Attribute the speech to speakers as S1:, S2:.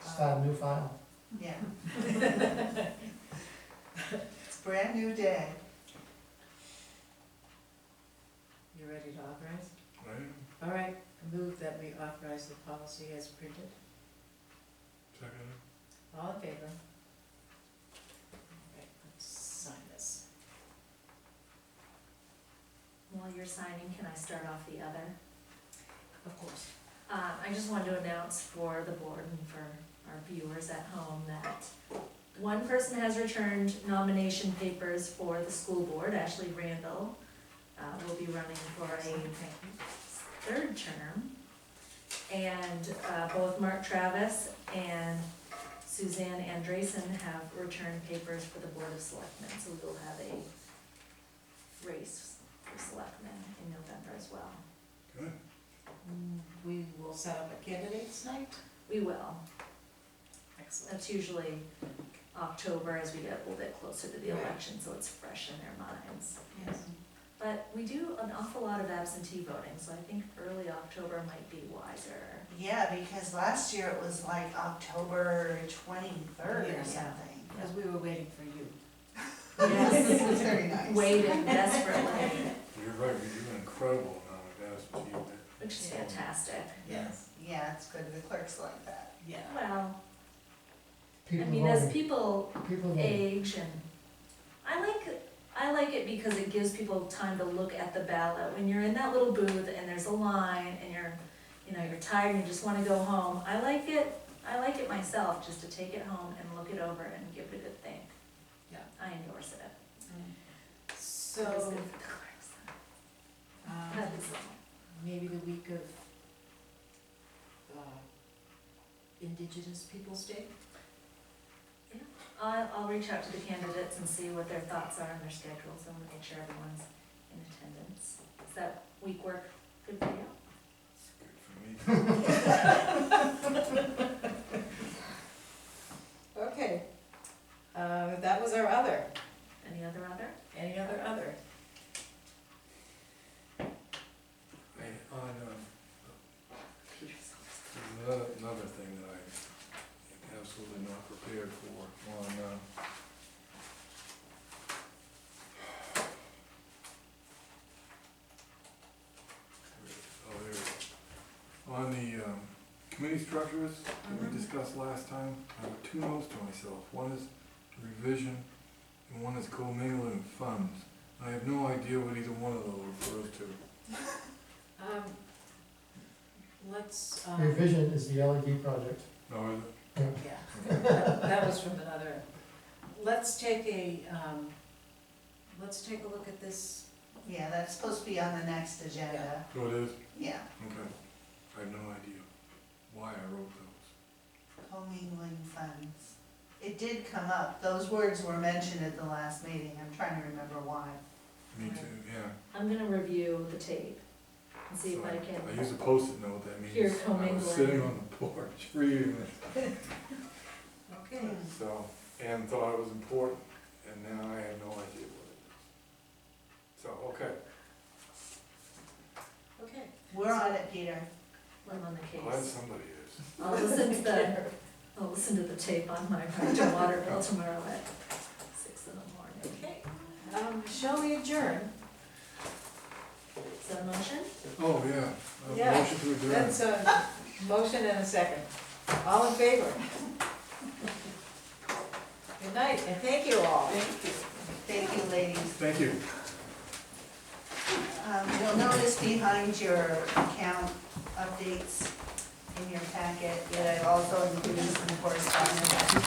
S1: start a new file.
S2: Yeah. It's a brand new day.
S3: You ready to authorize?
S4: I am,
S3: All right, I move that we authorize the policy as printed.
S4: second,
S3: All in favor? All right, let's sign this.
S5: While you're signing, can I start off the other?
S3: Of course.
S5: Uh, I just wanted to announce for the board and for our viewers at home that one person has returned nomination papers for the school board, Ashley Randall, uh, will be running for a third term. And uh, both Mark Travis and Suzanne Andresen have returned papers for the Board of Selectmen, so we will have a race for selectmen in November as well.
S4: good.
S3: Mm, We will set up a candidates night.
S5: We will,
S3: Excellent.
S5: that's usually October as we get a little bit closer to the election, so it's fresh in their minds.
S3: Yes.
S5: But we do an awful lot of absentee voting, so I think early October might be wiser.
S2: Yeah, because last year it was like October twenty-third
S3: Yeah.
S2: or something.
S3: Because we were waiting for you.
S5: Yes.
S2: It's Very nice.
S5: Waiting desperately.
S4: You're right, you're doing incredible now, that's what you did.
S5: Which is fantastic.
S2: Yes, yeah, it's good, the clerk's like that.
S3: Yeah.
S5: Well, I
S1: People
S5: mean, as
S1: voting,
S5: people
S1: people voting.
S5: age and, I like, I like it because it gives people time to look at the ballot. When you're in that little booth and there's a line and you're, you know, you're tired and you just wanna go home, I like it, I like it myself, just to take it home and look it over and give it a good think.
S3: Yeah.
S5: I endorse it. It's
S3: So,
S5: good for the clerks.
S3: um,
S5: That is all.
S3: maybe the week of uh, Indigenous Peoples' Day?
S5: I'll, I'll reach out to the candidates and see what their thoughts are and their schedules and make sure everyone's in attendance. Does that week work good for you?
S4: It's good for me.
S3: Okay. Uh, that was our other.
S5: Any other other?
S3: Any other other?
S4: I, on, um, another, another thing that I am absolutely not prepared for, on, um, oh, there it is. On the, um, committee structures that
S5: Mhm.
S4: we discussed last time, I have two notes to myself. One is revision, and one is commingling funds. I have no idea what either one of those refers to.
S3: Um, let's,
S1: Your
S3: um,
S1: vision is the LED project.
S4: No, is
S3: yeah,
S4: it?
S3: that that was from another. Let's take a, um, let's take a look at this.
S2: Yeah, that's supposed to be on the next agenda,
S4: So it is,
S2: yeah.
S4: okay. I have no idea why I wrote those.
S2: Commingling funds. It did come up, those words were mentioned at the last meeting, I'm trying to remember why.
S4: Me too, yeah.
S5: I'm gonna review the tape and see if
S4: So
S5: I
S4: I use
S5: can,
S4: a post-it note, that
S5: Here,
S4: means I was
S5: commingling.
S4: sitting on the porch reading this.
S3: Okay.
S5: Mm.
S4: So, and thought it was important, and now I have no idea what it is. So, okay,
S3: Okay.
S2: We're on it, Peter.
S5: I'm on the
S4: glad
S5: case.
S4: somebody is.
S5: I'll listen to the, I'll listen to the tape on my ride to water bill tomorrow at six in the morning.
S3: Okay. Um, shall we adjourn?
S5: Is that a motion?
S4: Oh, yeah. Uh,
S3: Yeah,
S4: Motion to adjourn.
S3: That's a motion and a second. All in favor? Good night, and thank you all.
S2: Thank you, ladies.
S4: Thank you.
S2: Um, You'll notice behind your account updates in your packet, that I also included some correspondence.